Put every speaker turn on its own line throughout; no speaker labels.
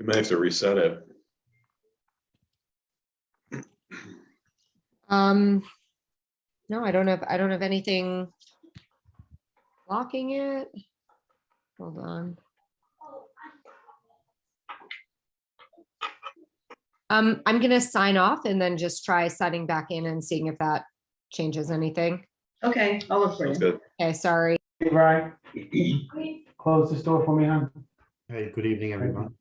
We may have to reset it.
Um, no, I don't have, I don't have anything blocking it. Hold on. Um, I'm gonna sign off and then just try signing back in and seeing if that changes anything.
Okay, I'll look for
Sounds
you.
good.
Okay, sorry.
Hey, Brian, close this door for me, huh?
Hey, good evening, everyone.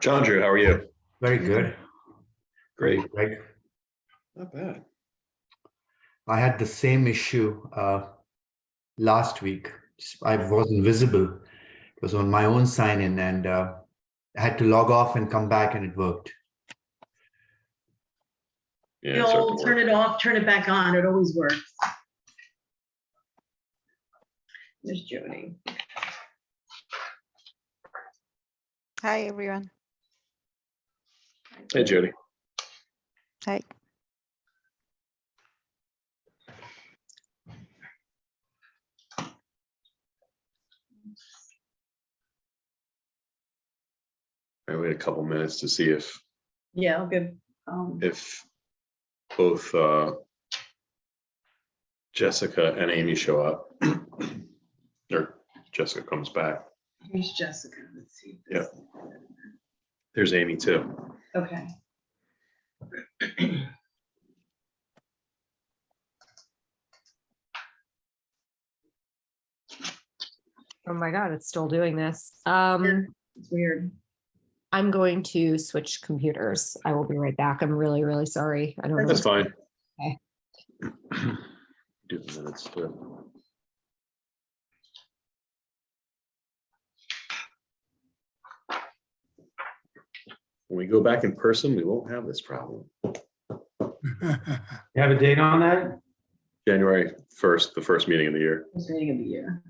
John Drew, how are you?
Very good.
Great.
Greg,
Not bad.
I had the same issue uh, last week. Just- I wasn't visible. It was on my own sign in and uh, I had to log off and come back and it worked.
Yeah. it's
You'll
hard to
turn
work.
it off, turn it back on. It always works. There's Jody.
Hi, everyone.
Hey, Jody.
Hi.
I wait a couple minutes to see if,
Yeah, I'll give, um,
if both uh, Jessica and Amy show up. Or Jessica comes back.
here's Jessica. Let's see.
Yeah. There's Amy too.
Okay.
Oh my God, it's still doing this. Um,
It's weird.
I'm going to switch computers. I will be right back. I'm really, really sorry. I don't know.
That's fine.
Okay.
Do the minutes too. When we go back in person, we won't have this problem.
You have a date on that?
January first, the first meeting of the year.
It's beginning of the year.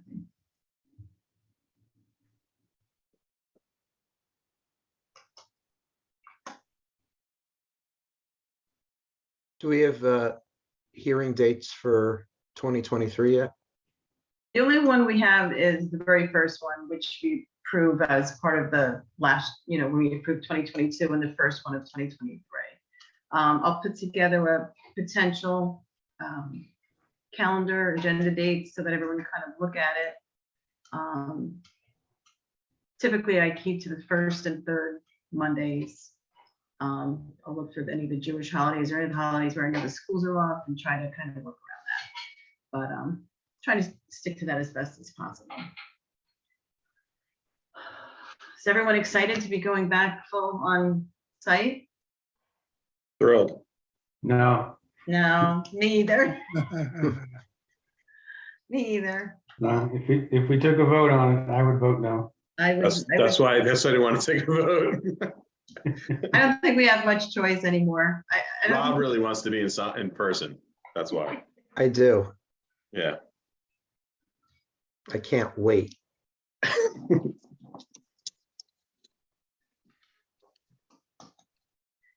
Do we have uh, hearing dates for 2023 yet?
The only one we have is the very first one, which we approve as part of the last, you know, when we approved 2022 and the first one of 2023. Um, I'll put together a potential um, calendar, agenda dates, so that everyone can kind of look at it. Um, Typically, I keep to the first and third Mondays. Um, I'll look for any of the Jewish holidays or any of the holidays where I know the schools are off and try to kind of work around that. But um, try to stick to that as best as possible. Is everyone excited to be going back full on site?
Thrilled.
No.
No, me either, me either.
No, if we, if we took a vote on it, I would vote no.
I would,
That's,
I
that's
would-
why, that's why I didn't want to take a vote.
I don't think we have much choice anymore. I, I
Rob
don't,
really wants to be in, so- in person. That's why.
I do.
Yeah.
I can't wait.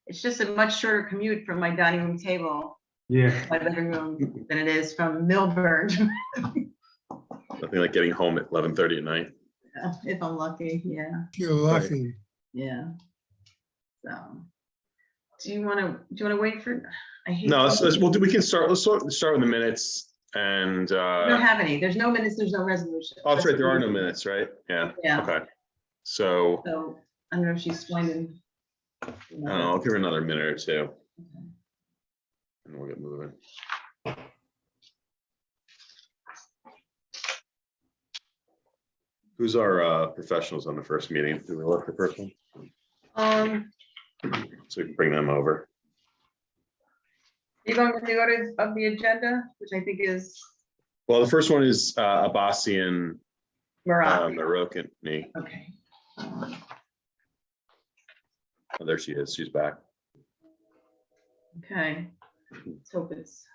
it's just a much shorter commute from my dining room table,
Yeah,
my living room, than it is from Milburn,
Nothing like getting home at eleven thirty at night.
if I'm lucky, yeah.
You're lucky.
Yeah. So, do you want to, do you want to wait for? I hate
No,
to-
let's, let's, well, we can start, let's sort- start with the minutes and,
We don't
uh,
have any. There's no minutes, there's no resolution.
oh, that's right, there are no minutes, right? Yeah,
Yeah,
okay. So,
so I don't know if she's finding.
I don't know, I'll give her another minute or two. Oh. And we'll get moving. Who's our uh, professionals on the first meeting? Do we look for person?
Um,
So we can bring them over.
you going with the orders of the agenda, which I think is
Well, the first one is uh, Abbasian, uh,
Marat.
Marokin. Nee.
Okay. Um,
Oh, There she is, she's back.
Okay, let's hope it's.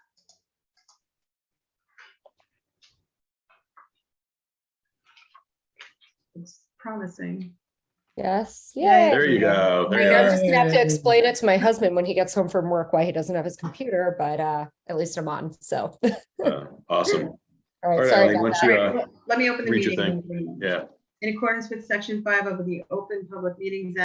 It's promising.
Yes.
Yeah,
There you go.
I
There
mean,
you
I'm
are.
just gonna have to explain it to my husband when he gets home from work why he doesn't have his computer, but uh, at least I'm on, so. All
Uh, Awesome. All
right,
right,
sorry
Eileen,
about
once
that.
you,
All
uh,
right, let- Let me open the
read your
meeting.
Yeah.
In accordance with section five of the Open Public Meetings